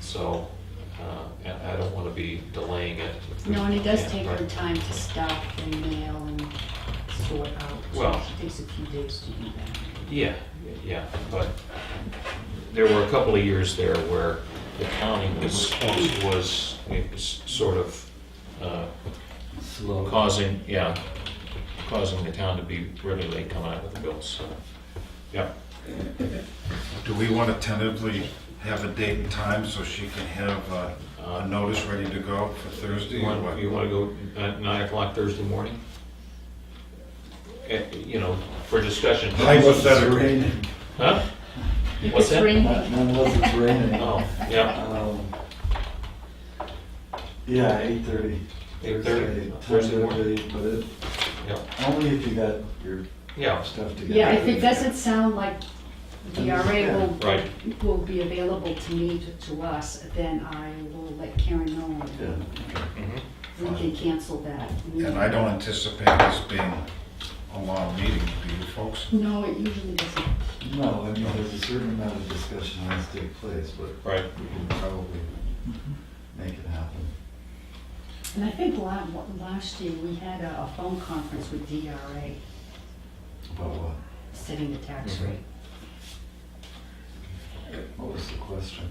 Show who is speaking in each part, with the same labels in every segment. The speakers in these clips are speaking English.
Speaker 1: so uh, and I don't want to be delaying it.
Speaker 2: No, and it does
Speaker 1: Yeah,
Speaker 2: take
Speaker 1: but-
Speaker 2: her time to stop and mail and sort out. So
Speaker 1: Well-
Speaker 2: She takes a few days to do that.
Speaker 1: Yeah, yeah, but there were a couple of years there where the county was, was, it was sort of uh,
Speaker 3: Slow.
Speaker 1: causing, yeah, causing the town to be really late coming out with the bills, so, yeah.
Speaker 4: Do we want to tentatively have a date and time so she can have uh, a notice ready to go for Thursday?
Speaker 1: You
Speaker 4: or
Speaker 1: want,
Speaker 4: what?
Speaker 1: you want to go at nine o'clock Thursday morning? Eh, You know, for discussion.
Speaker 4: Hypothetically,
Speaker 3: Raining.
Speaker 1: Huh? What's
Speaker 2: It's
Speaker 1: that?
Speaker 2: raining.
Speaker 3: Not- None of us, it's raining.
Speaker 1: Oh, yeah,
Speaker 3: Um, Yeah, eight thirty.
Speaker 1: 8:30, Thursday morning.
Speaker 3: But it,
Speaker 1: yeah,
Speaker 3: only if you got your
Speaker 1: yeah,
Speaker 3: stuff together.
Speaker 2: Yeah, if it doesn't sound like the RA will,
Speaker 1: right,
Speaker 2: will be available to me, to- to us, then I will let Karen know.
Speaker 3: Yeah.
Speaker 2: and We can cancel that.
Speaker 4: And I don't anticipate this being a long meeting, do you folks?
Speaker 2: No, it usually doesn't.
Speaker 3: No, I mean, there's a certain amount of discussion that has to take place, but
Speaker 1: right.
Speaker 3: we can probably make it happen.
Speaker 2: And I think la- last year, we had a a phone conference with DRA,
Speaker 3: About what?
Speaker 2: setting the tax
Speaker 1: Mhm.
Speaker 2: rate.
Speaker 3: What was the question?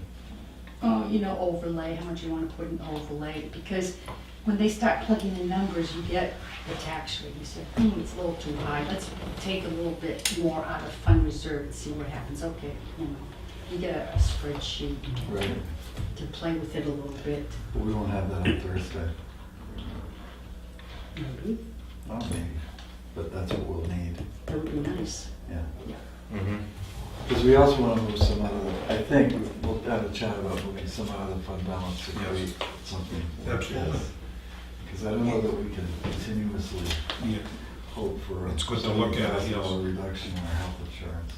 Speaker 2: Oh, you know, overlay, how much you wanna put in overlay, because when they start plugging in numbers, you get the tax rate, you say, hmm, it's a little too high, let's take a little bit more out of fund reserve and see what happens, okay, you know. You get a spreadsheet
Speaker 3: Right.
Speaker 2: to play with it a little bit,
Speaker 3: But we won't have that on Thursday.
Speaker 2: maybe,
Speaker 3: Not maybe, but that's what we'll need,
Speaker 2: that would be nice.
Speaker 3: yeah.
Speaker 1: mhm.
Speaker 3: Because we also want to move some out of, the- I think we'll have a chat about moving some out of the fund balance to create something.
Speaker 4: Absolutely.
Speaker 3: Because I don't know that we can continuously
Speaker 4: Yeah.
Speaker 3: hope for. a
Speaker 4: It's good to look at it, yes.
Speaker 3: $70,000 Reduction in our health insurance.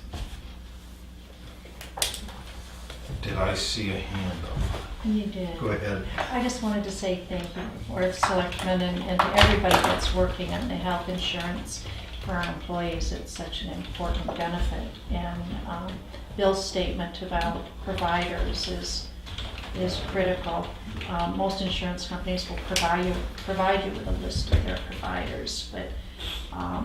Speaker 4: Did I see a hand up?
Speaker 5: You did.
Speaker 4: Go ahead.
Speaker 5: I just wanted to say thank you for the selectmen and, and to everybody that's working on the health insurance for our employees. It's such an important benefit. And um, Bill's statement about providers is, is critical. Um, Most insurance companies will provide you, provide you with a list of their providers, but um,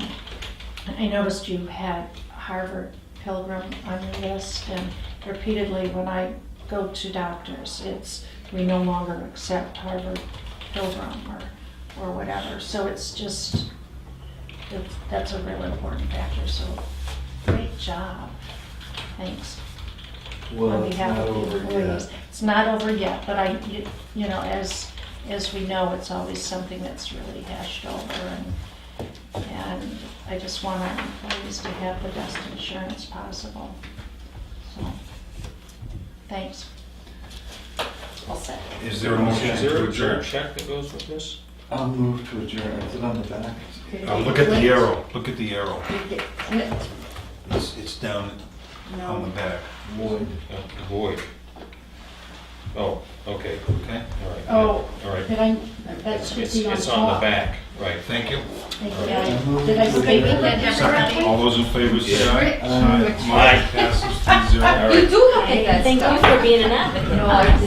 Speaker 5: I noticed you had Harvard Pilgrim on your list, and repeatedly when I go to doctors, it's, we no longer accept Harvard Pilgrim or, or whatever. So it's just, it's- that's a real important factor, so great job. Thanks.
Speaker 3: Well,
Speaker 5: on
Speaker 3: it's
Speaker 5: behalf
Speaker 3: not
Speaker 5: of the
Speaker 3: over
Speaker 5: employees.
Speaker 3: yet.
Speaker 5: It's not over yet, but I, you you know, as, as we know, it's always something that's really hashed over and, and I just want our employees to have the best insurance possible. So, thanks. All set.
Speaker 4: Is there a motion
Speaker 1: Is there
Speaker 4: to
Speaker 1: a
Speaker 4: adjourn?
Speaker 1: check that goes with this?
Speaker 3: I'll move to adjourn, is it on the back?
Speaker 4: Uh, Look at the arrow, look at the arrow.
Speaker 2: You get clipped,
Speaker 4: It's it's down on the
Speaker 2: no,
Speaker 4: back,
Speaker 3: Lloyd.
Speaker 1: Uh, Void. Oh, okay,
Speaker 4: okay?
Speaker 1: all right.
Speaker 2: Oh.
Speaker 1: All right.
Speaker 2: did I, that
Speaker 1: It's,
Speaker 2: should
Speaker 1: it's
Speaker 2: be on top.
Speaker 1: it's on the back, right.
Speaker 4: Thank you.
Speaker 2: Thank you, guys.
Speaker 3: right.
Speaker 2: Did I say
Speaker 3: Maybe
Speaker 2: that,
Speaker 6: let
Speaker 4: Second, all those in favor say aye.
Speaker 3: Aye.
Speaker 4: Motion passes three zero.
Speaker 6: You do look at that
Speaker 5: Thank
Speaker 6: stuff.
Speaker 5: you for
Speaker 6: being an advocate.
Speaker 5: No, I